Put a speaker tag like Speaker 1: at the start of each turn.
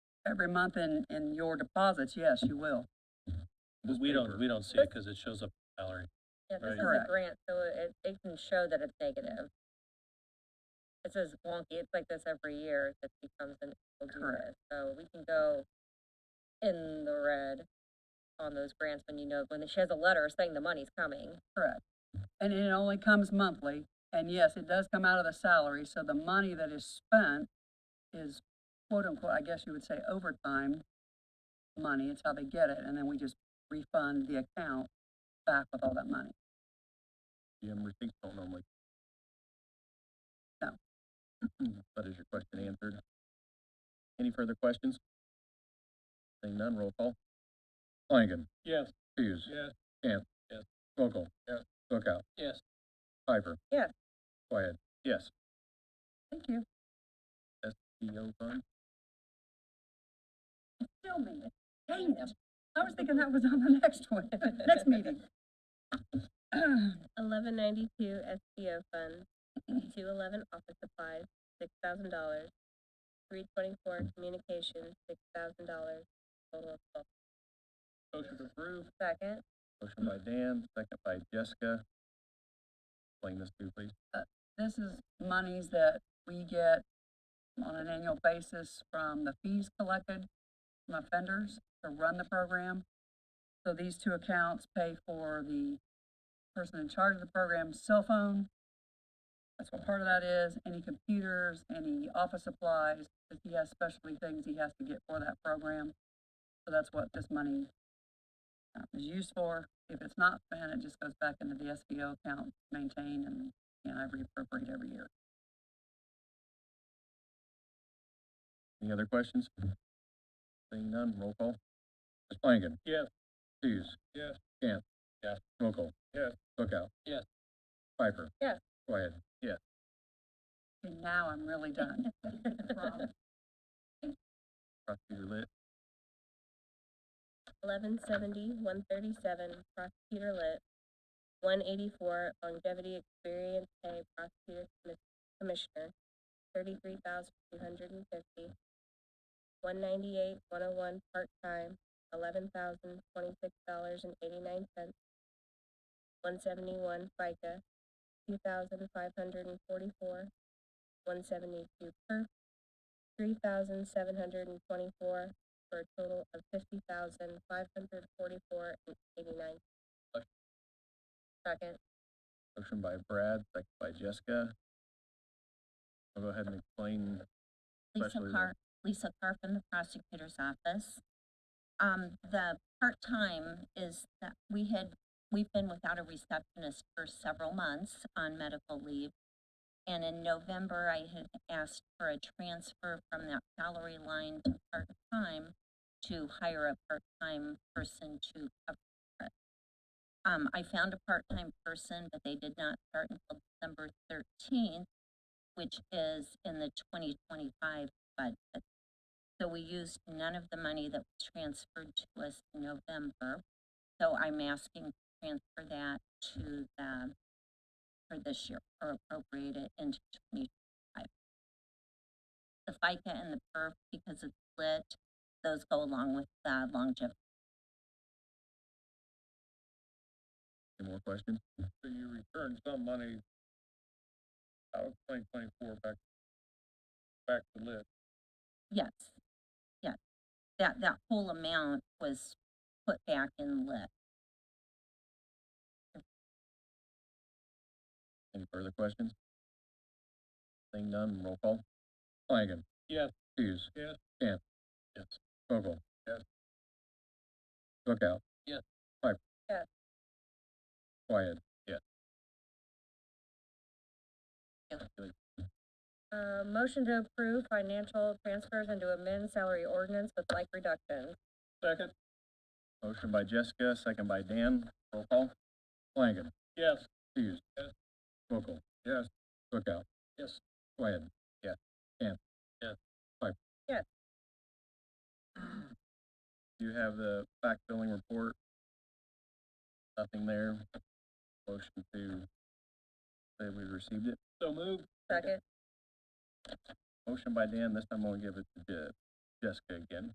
Speaker 1: every month in, in your deposits, yes, you will.
Speaker 2: Because we don't, we don't see it because it shows up in salary.
Speaker 3: Yeah, this
Speaker 2: Right.
Speaker 3: is a
Speaker 1: Correct.
Speaker 3: grant, so it, it can show that it's negative. This is wonky, it's like this every year, it becomes an, we'll do
Speaker 1: Correct.
Speaker 3: this, so we can go in the red on those grants when you know, when she has a letter saying the money's coming.
Speaker 1: Correct. And it only comes monthly, and yes, it does come out of the salary, so the money that is spent is quote unquote, I guess you would say overtime money, it's how they get it, and then we just refund the account back with all that money.
Speaker 4: Yeah, and receipts don't normally.
Speaker 1: No.
Speaker 4: But is your question answered? Any further questions? Seeing none, roll call. Flanagan.
Speaker 2: Yes.
Speaker 4: Hughes.
Speaker 2: Yes.
Speaker 4: Camp.
Speaker 2: Yes.
Speaker 4: Vogel.
Speaker 2: Yes.
Speaker 4: Bookout.
Speaker 2: Yes.
Speaker 4: Piper.
Speaker 3: Yes.
Speaker 4: Wyatt. Yes.
Speaker 1: Thank you.
Speaker 4: PO fund.
Speaker 1: Still me, dang it. I was thinking that was on the next one, next meeting.
Speaker 3: Eleven ninety-two SBO fund, two eleven office supplies, six thousand dollars. Three twenty-four communications, six thousand dollars, total of twelve.
Speaker 2: Motion to approve.
Speaker 3: Second,
Speaker 4: Motion by Dan, second by Jessica. Explain this to me, please.
Speaker 1: This is monies that we get on an annual basis from the fees collected from offenders to run the program. So these two accounts pay for the person in charge of the program's cell phone. That's what part of that is, any computers, any office supplies, if he has specialty things he has to get for that program. So that's what this money uh, is used for. If it's not spent, it just goes back into the SBO account, maintained and and I reappropriate every year.
Speaker 4: Any other questions? Seeing none, roll call. Ms. Flanagan.
Speaker 2: Yes.
Speaker 4: Hughes.
Speaker 2: Yes.
Speaker 4: Camp.
Speaker 2: Yes.
Speaker 4: Mokel.
Speaker 2: Yes.
Speaker 4: Bookout.
Speaker 2: Yes.
Speaker 4: Piper.
Speaker 3: Yes.
Speaker 4: Wyatt.
Speaker 1: And now I'm really done. Promise.
Speaker 4: Prosecutor Lit.
Speaker 3: eleven seventy, one thirty-seven, prosecutor lit, one eighty-four, longevity experience pay, prosecutor commis- commissioner, thirty-three thousand two hundred and fifty, one ninety-eight, one oh one, part-time, eleven thousand twenty-six dollars and eighty-nine cents, one seventy-one, FICA, two thousand five hundred and forty-four, one seventy-two per, three thousand seven hundred and twenty-four, for a total of fifty thousand five hundred forty-four and eighty-nine.
Speaker 4: Okay.
Speaker 3: Second,
Speaker 4: Motion by Brad, second by Jessica. I'll go ahead and explain.
Speaker 5: Lisa
Speaker 4: Especially the-
Speaker 5: Carr, Lisa Carr from the prosecutor's office. Um, the part-time is that we had, we've been without a receptionist for several months on medical leave. And in November, I had asked for a transfer from that salary line to part-time to hire a part-time person to cover it. Um, I found a part-time person, but they did not start until December thirteenth which is in the twenty twenty-five budget. So we used none of the money that was transferred to us in November. So I'm asking to transfer that to the, for this year, or appropriate it into twenty twenty-five. The FICA and the PERF, because it's split, those go along with the longevity.
Speaker 4: Any more questions?
Speaker 2: So you return some money out of twenty twenty-four back, back to lit.
Speaker 5: Yes, yes. That, that whole amount was put back in lit.
Speaker 4: Any further questions? Seeing none, roll call. Flanagan.
Speaker 2: Yes.
Speaker 4: Hughes.
Speaker 2: Yes.
Speaker 4: Camp.
Speaker 2: Yes.
Speaker 4: Vogel.
Speaker 2: Yes.
Speaker 4: Bookout.
Speaker 2: Yes.
Speaker 4: Piper.
Speaker 3: Yes.
Speaker 4: Wyatt.
Speaker 3: uh, motion to approve financial transfers and to amend salary ordinance with like reductions.
Speaker 2: Second?
Speaker 4: Motion by Jessica, second by Dan. Roll call. Flanagan.
Speaker 2: Yes.
Speaker 4: Hughes.
Speaker 2: Yes.
Speaker 4: Mokel. Yes. Bookout.
Speaker 2: Yes.
Speaker 4: Wyatt. Yes. Camp.
Speaker 2: Yes.
Speaker 4: Piper.
Speaker 3: Yes.
Speaker 4: Do you have the fact filling report? Nothing there. Motion to say we received it.
Speaker 2: So moved.
Speaker 3: Second,
Speaker 4: Motion by Dan, this time I'm gonna give it to Je- Jessica again.